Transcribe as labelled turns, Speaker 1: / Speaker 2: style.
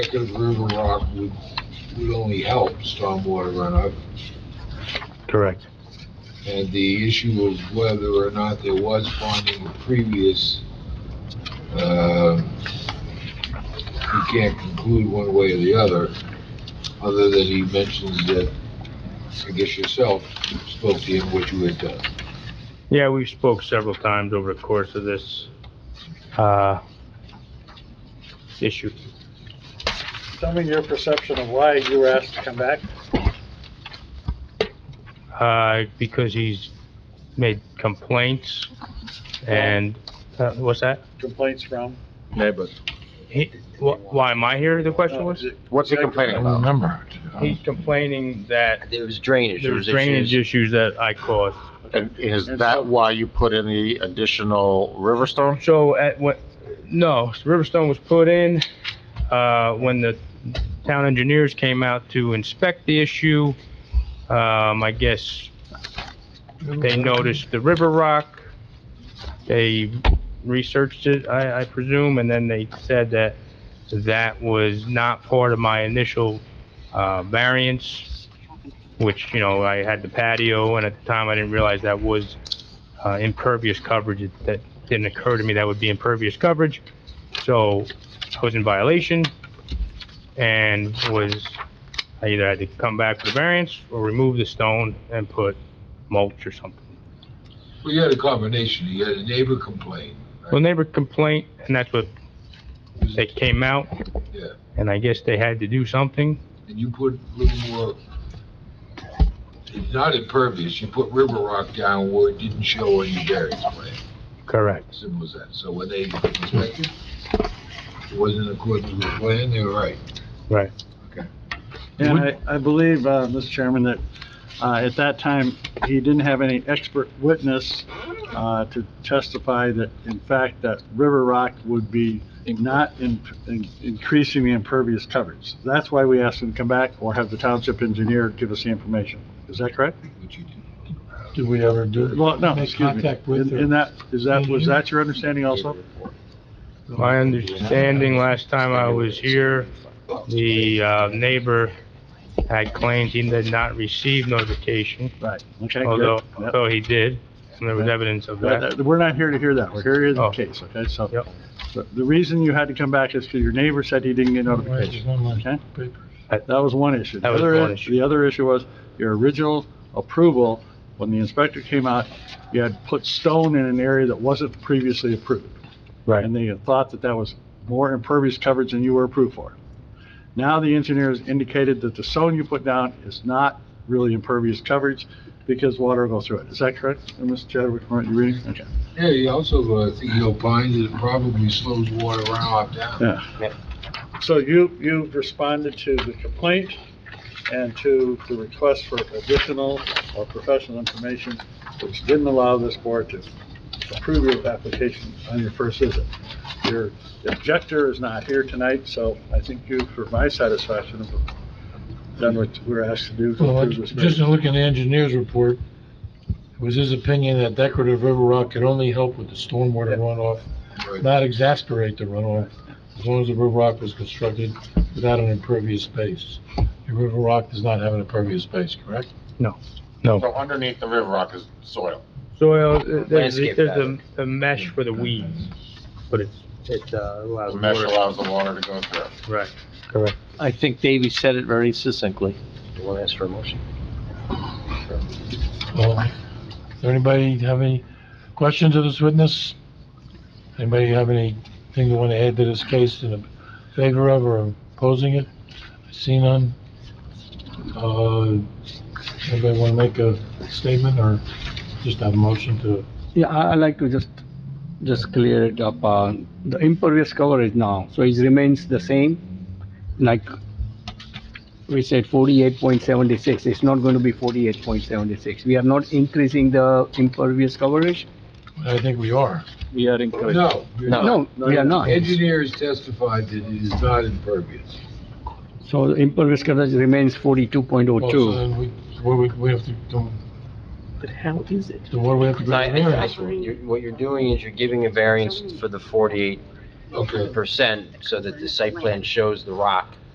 Speaker 1: Because river rock would, would only help stormwater runoff,
Speaker 2: Correct.
Speaker 1: and the issue of whether or not there was bonding with previous, uh, you can't conclude one way or the other, other than he mentions that, I guess yourself spoke to him what you had done.
Speaker 2: Yeah, we spoke several times over the course of this, uh, issue.
Speaker 3: Tell me your perception of why you were asked to come back.
Speaker 2: Uh, because he's made complaints and, uh, what's that?
Speaker 3: Complaints from?
Speaker 4: neighbors.
Speaker 2: He, wh- why am I here,
Speaker 3: uh,
Speaker 2: the question
Speaker 5: Uh,
Speaker 2: was?
Speaker 4: What's he complaining about?
Speaker 1: remember.
Speaker 2: He's complaining that
Speaker 5: There was drainage.
Speaker 2: there's drainage issues that I caused.
Speaker 4: And is that why you put in the additional Riverstone?
Speaker 2: So at what, no, Riverstone was put in, uh, when the town engineers came out to inspect the issue. Um, I guess they noticed the river rock. They researched it, I, I presume, and then they said that that was not part of my initial, uh, variance, which, you know, I had the patio, and at the time I didn't realize that was, uh, impervious coverage. It- That didn't occur to me that would be impervious coverage. So I was in violation and was, I either had to come back with a variance or remove the stone and put mulch or something.
Speaker 1: We had a combination, you had a neighbor complain.
Speaker 2: Well, neighbor complaint, and that's what they came out.
Speaker 1: Yeah.
Speaker 2: And I guess they had to do something.
Speaker 1: and you put a little more, it's not impervious, you put river rock down where it didn't show on your variance plan,
Speaker 2: Correct.
Speaker 1: simple as that. So when they inspected, it wasn't in accordance with the plan, they were right.
Speaker 3: And I, I believe, uh, Mr. Chairman, that, uh, at that time, he didn't have any expert witness, uh, to testify that, in fact, that river rock would be not in, in- increasing the impervious coverage. That's why we asked him to come back or have the township engineer give us the information. Is that correct?
Speaker 1: What you did.
Speaker 6: Did we ever do
Speaker 3: Well, no,
Speaker 6: Make
Speaker 3: excuse me.
Speaker 6: contact with
Speaker 3: In-
Speaker 6: her.
Speaker 3: In that, is that, was that your understanding also?
Speaker 2: My understanding last time I was here, the uh, neighbor had claimed he did not receive notification.
Speaker 3: Right, okay,
Speaker 2: Although,
Speaker 3: good. Yep.
Speaker 2: although he did, and there was
Speaker 3: Yeah.
Speaker 2: evidence of
Speaker 3: But
Speaker 2: that.
Speaker 3: that- We're not here to hear that, we're here to hear the
Speaker 2: Oh.
Speaker 3: case, okay? So,
Speaker 2: Yep.
Speaker 3: so the reason you had to come back is because your neighbor said he didn't get notification, okay? That was one issue. The
Speaker 2: That was
Speaker 3: other
Speaker 2: one
Speaker 3: i-
Speaker 2: issue.
Speaker 3: The other issue was your original approval, when the inspector came out, you had put stone in an area that wasn't previously approved.
Speaker 2: Right.
Speaker 3: And they had thought that that was more impervious coverage than you were approved for. Now the engineers indicated that the stone you put down is not really impervious coverage because water will go through it. Is that correct, Mr. Chadwick, from what you're reading? Okay.
Speaker 1: Yeah, he also, uh, I think he opined that it probably slows water runoff down.
Speaker 3: Yeah. So you, you've responded to the complaint and to the request for additional or professional information, which didn't allow this board to approve your application on your first visit. Your objector is not here tonight, so I think you, for my satisfaction, have done what we we're asked to do to
Speaker 6: Well, I-
Speaker 3: approve this.
Speaker 6: just in looking at the engineer's report, it was his opinion that decorative river rock could only help with the stormwater runoff,
Speaker 1: Right.
Speaker 6: not exacerbate the runoff, as long as the river rock was constructed without an impervious base. The river rock does not have an impervious base, correct?
Speaker 4: So underneath the river rock is soil.
Speaker 2: Soil, uh, there's,
Speaker 5: Landscape
Speaker 2: there's a, a mesh for the weeds, but it's, it uh, allows
Speaker 4: The mesh
Speaker 2: water.
Speaker 4: allows the water to go through.
Speaker 2: Right.
Speaker 5: I think Davey said it very succinctly. You want to ask for a motion?
Speaker 6: Well, does anybody have any questions of this witness? Anybody have anything they want to add to this case in favor of or opposing it? I see none. Uh, anybody want to make a statement or just have a motion to?
Speaker 7: Yeah, I, I like to just, just clear it up, uh, the impervious cover is now, so it remains the same, like we said forty-eight point seventy-six, it's not going to be forty-eight point seventy-six, we are not increasing the impervious coverage,
Speaker 6: I think we are.
Speaker 3: We are encouraged.
Speaker 1: No,
Speaker 7: no, we are not,
Speaker 1: engineers testified that it is not impervious.
Speaker 7: so the impervious coverage remains forty-two point oh
Speaker 6: Well, so
Speaker 7: two.
Speaker 6: then we, what we, we have to, do.
Speaker 5: But how is it?
Speaker 6: then what do we have to go
Speaker 5: I,
Speaker 6: to
Speaker 5: I,
Speaker 6: variance
Speaker 5: I-
Speaker 6: for?
Speaker 5: you're- what you're doing is you're giving a variance for the forty-eight
Speaker 8: Okay.
Speaker 5: percent so that the site plan shows the rock